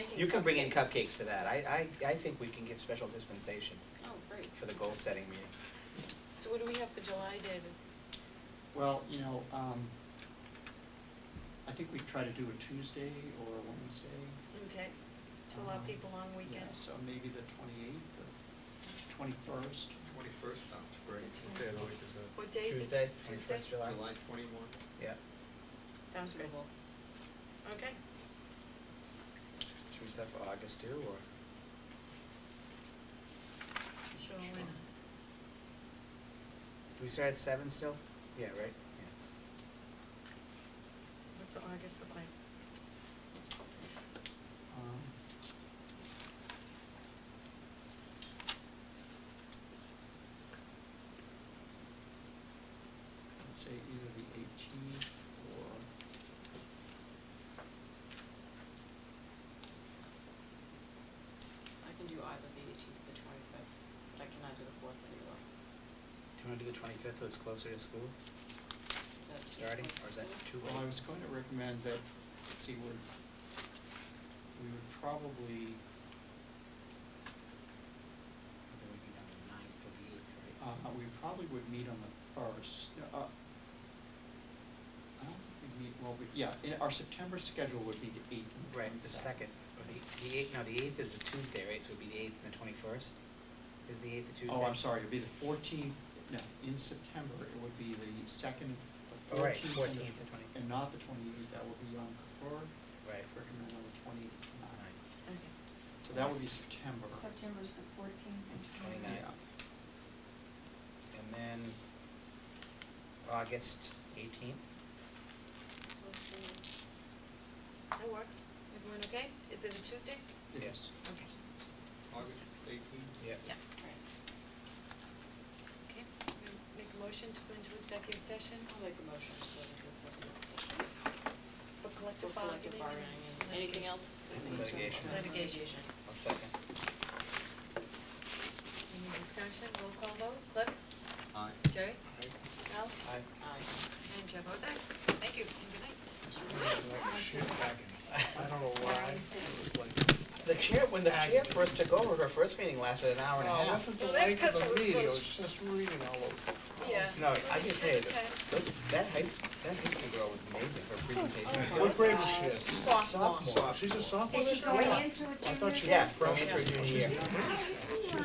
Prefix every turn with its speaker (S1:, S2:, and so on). S1: You can bring in cupcakes for that. I, I, I think we can give special dispensation
S2: Oh, great.
S1: for the goal-setting meeting.
S2: So what do we have for July, David?
S3: Well, you know, um, I think we try to do a Tuesday or a Wednesday.
S2: Okay, to allow
S4: Uh,
S3: um,
S2: people long
S3: Yeah,
S2: weekends.
S3: so maybe the twenty-eighth or twenty-first.
S5: Twenty-first sounds great. What day
S2: What day of
S5: the week is that?
S2: What day is it?
S1: Tuesday, 21st July.
S5: July twenty-one.
S1: Yeah.
S2: Sounds good. Okay,
S1: Should we set for August too, or?
S2: sure, why
S3: Sure.
S2: not?
S1: Do we start at seven still? Yeah, right? Yeah.
S2: What's August look like?
S3: um. I'd say either the eighteenth or.
S4: I can do either the eighteenth or the twenty-fifth, but I cannot do the fourth anymore.
S1: Do you wanna do the twenty-fifth, so it's closer to school
S4: Is that too
S1: starting,
S4: close
S1: or is that
S4: to you?
S1: too
S3: Well, I was
S1: late?
S3: going to recommend that, let's see, we're, we would probably, uh, we probably would meet on the first, uh, I don't think we meet, well, we, yeah, in- our September schedule would be the eighth and
S1: Right, the second, or the, the eighth, no, the eighth is a Tuesday, right, so it'd be the eighth and the twenty-first? Is the eighth a Tuesday?
S3: Oh, I'm sorry, it'd be the fourteenth, no, in September, it would be the second, the
S1: Oh, right,
S3: fourteenth.
S1: 14th and 20th.
S3: And not the twenty-eighth, that would be on Kippur,
S1: Right.
S3: recommend on the twenty-ninth.
S2: Okay,
S3: So that would be September.
S6: September's the fourteenth and
S1: Twenty-nine.
S6: twenty-ninth.
S1: And then August eighteenth?
S2: that works. Everyone okay? Is it a Tuesday?
S3: Yes.
S2: Okay.
S5: August eighteenth?
S1: Yeah.
S2: Yeah. Okay, I'm gonna make a motion to go into executive session
S4: I'll make a motion to go into executive session. For
S2: for collective bargaining.
S4: collective bargaining and anything else? that we need to-
S1: Litigation.
S2: Litigation.
S1: I'll second.
S2: Any discussion, roll call vote, Cliff,
S5: Aye.
S2: Jerry, Al,
S1: Aye.
S4: Aye.
S2: and Chair votes aye. Thank you, and good night.
S7: I don't know why. It was like-
S1: The chair, when the chair first took over, her first meeting lasted an hour and a
S7: Oh, it
S1: half.
S7: wasn't the
S2: Well, that's
S7: length of
S2: 'cause it
S7: the
S2: was
S7: meeting, it
S2: so
S7: was just reading all over.
S2: Yeah.
S1: No, I can tell you,
S2: Okay.
S1: that- those, that high, s- that high school girl was amazing, her
S2: Oh,
S1: presentation.
S7: What grade is she in?
S2: Sophomore.
S7: Sophomore, she's a sophomore?
S6: Oh, Is she going into a
S7: I
S6: junior? Oh,
S7: thought she
S1: Yeah,
S7: was
S1: from
S7: freshman.
S1: entry junior year.